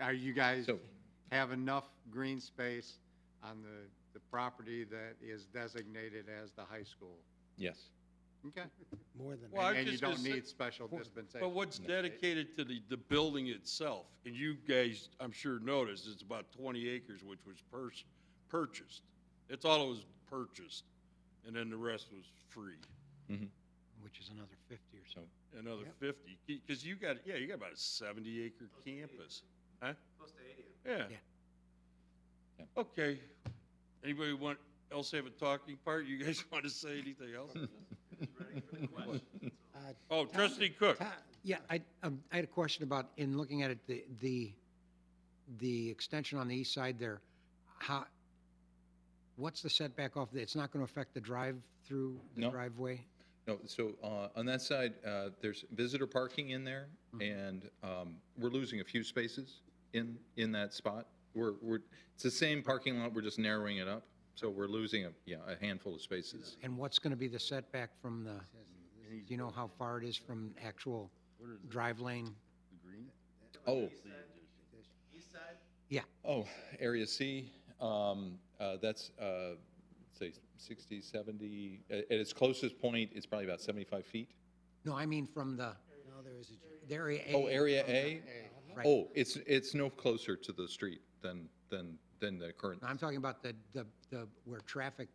Are you guys So- have enough green space on the, the property that is designated as the high school? Yes. Okay? More than Well, I was And you just gonna don't say- need special dispensation. But what's dedicated to the, the building itself, and you guys, I'm sure noticed, it's about twenty acres, which was pers- purchased. It's all that was purchased, and then the rest was free, which is another 50 or so. So another fifty, because you got, yeah, you got about a seventy acre campus, huh? Close to eighty. Yeah. Yeah. Yeah. Okay, anybody want, else have a talking part, you guys want to say anything else? Uh, Oh, trustee Cook, Ta- Yeah, I, um, I had a question about, in looking at it, the, the, the extension on the east side there, how, what's the setback off, the- it's not going to affect the drive-through, the No. driveway? No, so uh, on that side, uh, there's visitor parking in there, and um, we're losing a few spaces in, in that spot. We're, we're, it's the same parking lot, we're just narrowing it up, so we're losing, a yeah, a handful of spaces. And what's going to be the setback from the, do you know how far it is from actual drive lane? Oh, Yeah, oh, Area C, um, uh, that's, uh, say, 60, 70, at at its closest point, it's probably about 75 feet. no, I mean from the. there is a. Oh, Area A? Right. Oh, it's, it's no closer to the street than, than, than the current. No, I'm talking about the, the, the, where traffic,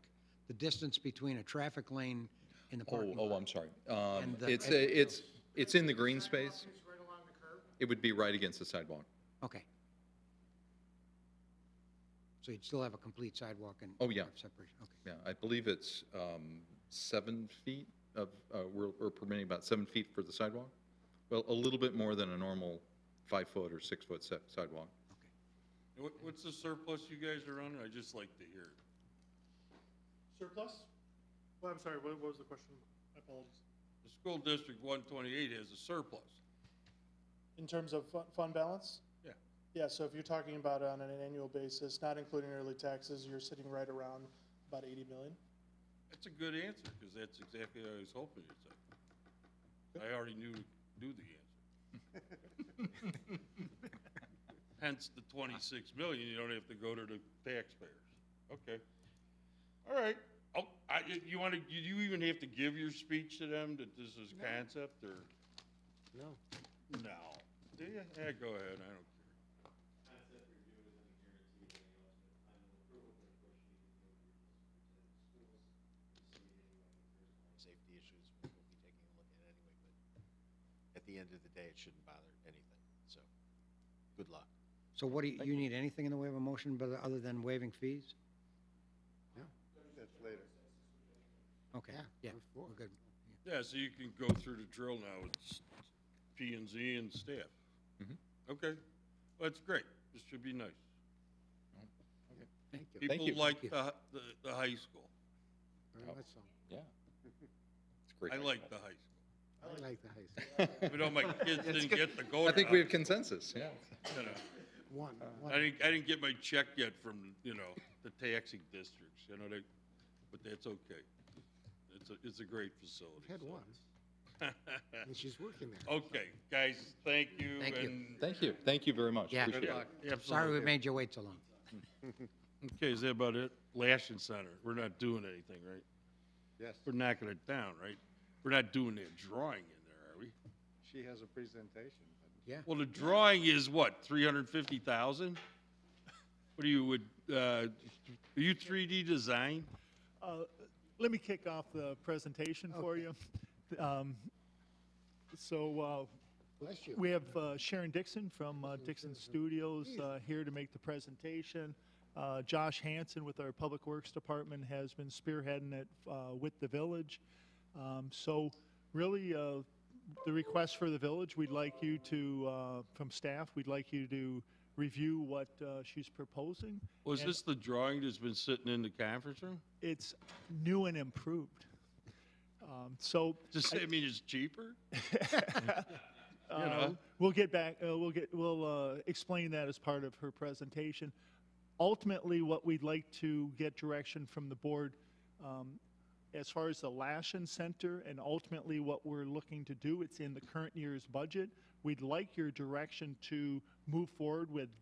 the distance between a traffic lane and the Oh, parking lot. oh, I'm sorry. Um, And the- It's, a- it's, it's in the green space. It would be right against the sidewalk. Okay. So you'd still have a complete sidewalk and. Oh, yeah. have Separation, okay. Yeah, I believe it's um, seven feet of, uh, we're we're permitting about seven feet for the sidewalk. Well, a little bit more than a normal five-foot or six-foot si- sidewalk. what, what's the surplus you guys are on, I just like to hear it. Surplus? Well, I'm sorry, what what was the question? My apologies. The school district one twenty-eight has a surplus. In terms of fu- fund balance? Yeah. Yeah, so if you're talking about on an annual basis, not including early taxes, you're sitting right around about 80 million. That's a good answer, because that's exactly what I was hoping you'd say. I already knew, knew the answer. Hence the twenty-six million, you don't have to go to the taxpayers. Okay. All right. Oh, I, you- you wanna, do you even have to give your speech to them that this is concept, or? No. No. Do you? Yeah, go ahead, I don't care. safety issues, which we'll be taking a look at anyway, but at the end of the day, it shouldn't bother anything, so, good luck. So what do you, you need anything in the way of a motion, but other than waiving fees? No. That's later. Okay, yeah, we're good. Yeah, so you can go through the drill now with s- P and Z and staff. Mm-hmm. Okay, well, that's great. This should be nice. Thank you. you. People like the, hi- the, the high school. Very much Yeah. It's great. I like the high I like the high school. school. Even though my kids didn't get to go I to think we high have consensus, yeah. you know. One, Uh, one. I didn't, I didn't get my check yet from, you know, the taxing districts, you know, they, but that's okay. It's a, it's a great facility. Had so. one, and she's working there. Okay, guys, thank you. Thank you. and- Thank you, thank you very much. Yeah. Appreciate it. Sorry we Absolutely. made you wait so long. Okay, is that about it? Lashing Center, we're not doing anything, right? Yes, We're knocking it down, right? We're not doing that drawing in there, are we? she has a presentation. Well, the drawing is what, three hundred fifty thousand? What are you, would, uh, are you three D design? Uh, Let me kick off the presentation for you. Um, So uh, Bless you. we have uh, Sharon Dixon from uh, Dixon Studios uh, here to make the presentation. Uh, Josh Hanson with our Public Works Department has been spearheading it uh, with the village. Um, So really, uh, the request for the village, we'd like you to, uh, from staff, we'd like you to review what uh, she's proposing. Was And- this the drawing that's been sitting in the conference room? It's new and improved. Um, So Does that mean it's cheaper? Uh, We'll get back, uh, we'll get, we'll uh, explain that as part of her presentation. Ultimately, what we'd like to get direction from the board, um, as far as the Lashen Center and ultimately what we're looking to do, it's in the current year's budget. We'd like your direction to move forward with